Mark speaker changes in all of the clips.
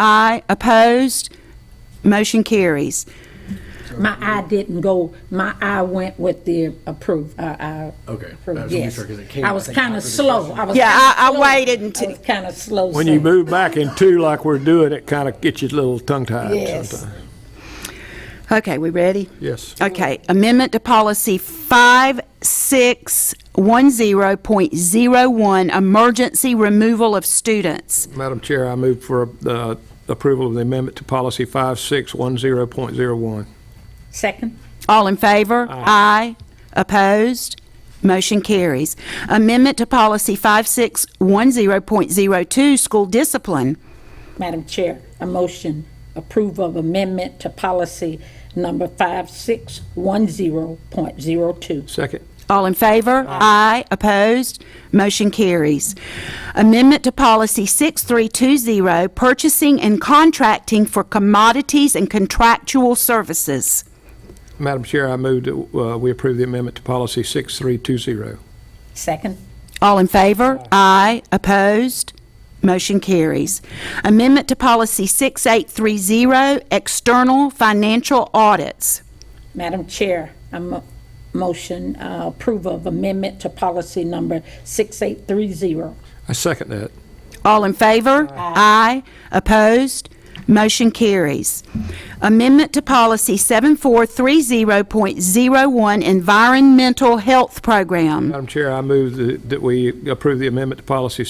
Speaker 1: Aye. Opposed? Motion carries.
Speaker 2: My eye didn't go, my eye went with the approve, uh, I.
Speaker 3: Okay.
Speaker 2: approved,
Speaker 3: I was making
Speaker 2: Yes.
Speaker 3: sure 'cause it came,
Speaker 2: I
Speaker 3: I
Speaker 2: was
Speaker 3: think,
Speaker 2: kind
Speaker 3: after the
Speaker 2: of slow.
Speaker 3: question.
Speaker 2: I was.
Speaker 1: Yeah,
Speaker 2: kinda
Speaker 1: I- I
Speaker 2: slow.
Speaker 1: waited until-
Speaker 2: I was kind of slow.
Speaker 4: When you
Speaker 2: so-
Speaker 4: move back in two like we're doing, it kind of gets you a little tongue-tied
Speaker 2: Yes.
Speaker 4: sometimes.
Speaker 1: Okay, we ready?
Speaker 4: Yes.
Speaker 1: Okay, amendment to policy 5610.01, emergency removal of students.
Speaker 4: Madam Chair, I move for uh, approval of the amendment to policy 5610.01.
Speaker 2: Second,
Speaker 1: All in favor? Aye. Opposed? Motion carries. Amendment to policy 5610.02, school discipline.
Speaker 2: Madam Chair, a motion approve of amendment to policy number 5610.02.
Speaker 4: Second.
Speaker 1: All in favor? Aye. Opposed? Motion carries. Amendment to Policy 6320, Purchasing and Contracting for Commodities and Contractual Services.
Speaker 4: Madam Chair, I move that uh, we approve the amendment to policy 6320.
Speaker 2: Second,
Speaker 1: All in favor? Aye. Opposed? Motion carries. Amendment to Policy 6830, External Financial Audits.
Speaker 2: Madam Chair, a mo- motion uh, approve of amendment to policy number 6830.
Speaker 4: I second that.
Speaker 1: All in favor? Aye. Opposed? Motion carries. Amendment to Policy 7430.01 Environmental Health Program.
Speaker 4: Madam Chair, I move that- that we approve the amendment to policy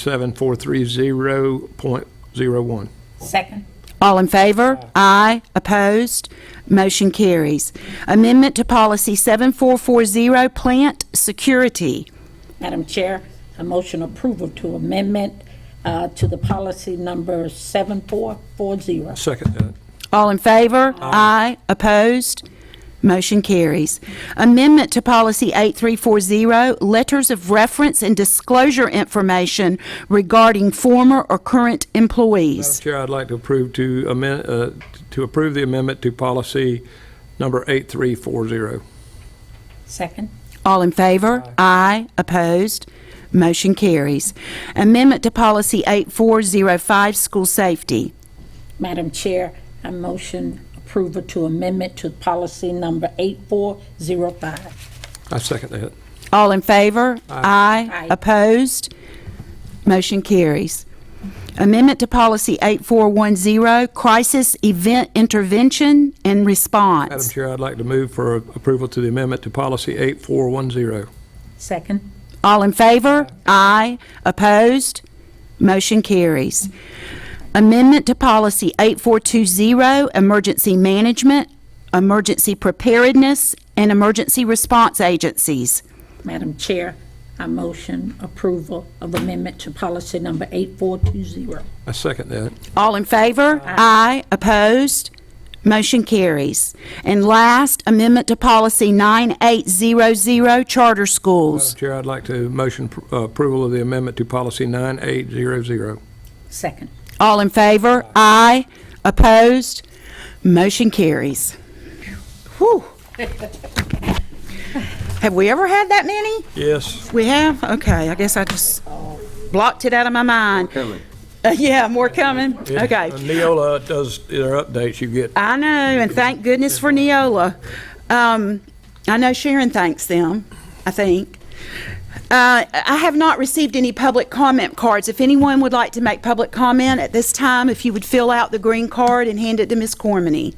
Speaker 4: 7430.01.
Speaker 2: Second,
Speaker 1: All in favor? Aye. Opposed? Motion carries. Amendment to Policy 7440 Plant Security.
Speaker 2: Madam Chair, a motion approval to amendment uh, to the policy number 7440.
Speaker 4: Second that.
Speaker 1: All in favor? Aye. Opposed? Motion carries. Amendment to Policy 8340, Letters of Reference and Disclosure Information Regarding Former or Current
Speaker 4: Madam
Speaker 1: Employees.
Speaker 4: Chair, I'd like to approve to amend, uh, to approve the amendment to policy number 8340.
Speaker 2: Second,
Speaker 1: All in favor? Aye. Opposed? Motion carries. Amendment to Policy 8405, School Safety.
Speaker 2: Madam Chair, a motion approval to amendment to policy number 8405.
Speaker 4: I second that.
Speaker 1: All in favor?
Speaker 2: Aye.
Speaker 1: Opposed? Motion carries. Amendment to Policy 8410, Crisis Event Intervention and
Speaker 4: Madam
Speaker 1: Response.
Speaker 4: Chair, I'd like to move for approval to the amendment to policy 8410.
Speaker 2: Second,
Speaker 1: All in favor? Aye. Opposed? Motion carries. Amendment to Policy 8420, Emergency Management, Emergency Preparedness, and Emergency Response Agencies.
Speaker 2: Madam Chair, a motion approval of amendment to policy number 8420.
Speaker 4: I second that.
Speaker 1: All in favor? Aye. Opposed? Motion carries. And last, amendment to Policy 9800, Charter Schools.
Speaker 4: Madam Chair, I'd like to motion pr- uh, approval of the amendment to policy 9800.
Speaker 2: Second,
Speaker 1: All in favor? Aye. Opposed? Motion carries. Whew. Have we ever had that many?
Speaker 4: Yes.
Speaker 1: We have? Okay, I guess I just blocked it out of my mind.
Speaker 3: Coming.
Speaker 1: Uh, Yeah, more coming? Okay.
Speaker 4: uh, Neola does their updates, you get.
Speaker 1: I know, and thank goodness for Neola. Um, I know Sharon thanks them, I think. Uh, I have not received any public comment cards. If anyone would like to make public comment at this time, if you would fill out the green card and hand it to Ms. Cormany.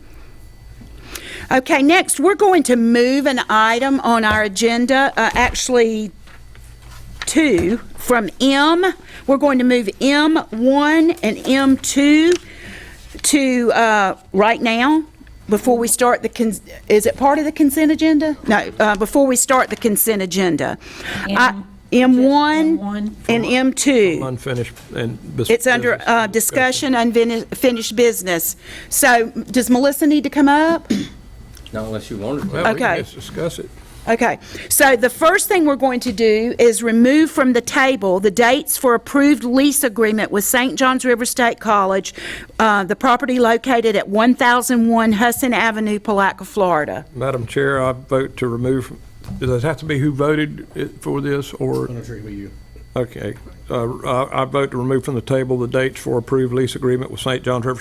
Speaker 1: Okay, next, we're going to move an item on our agenda, uh, actually two, from M. We're going to move M1 and M2 to uh, right now, before we start the, cons- is it part of the consent agenda? No, uh, before we start the consent agenda. I- M1
Speaker 2: M1.
Speaker 1: and M2.
Speaker 4: Unfinished and. bes-
Speaker 1: It's under
Speaker 4: business.
Speaker 1: uh, discussion, unfinished business. So does Melissa need to come up?
Speaker 3: Not unless you wanted to.
Speaker 4: Well, we can
Speaker 1: okay.
Speaker 4: just Discuss it.
Speaker 1: Okay, so the first thing we're going to do is remove from the table the dates for approved lease agreement with St. John's River State College, uh, the property located at 1001 Hussin Avenue, Palaca, Florida.
Speaker 4: Madam Chair, I vote to remove, does it have to be who voted it for this, or?
Speaker 3: It's gonna trigger you.
Speaker 4: Okay. Uh, I I vote to remove from the table the dates for approved lease agreement with St. John's River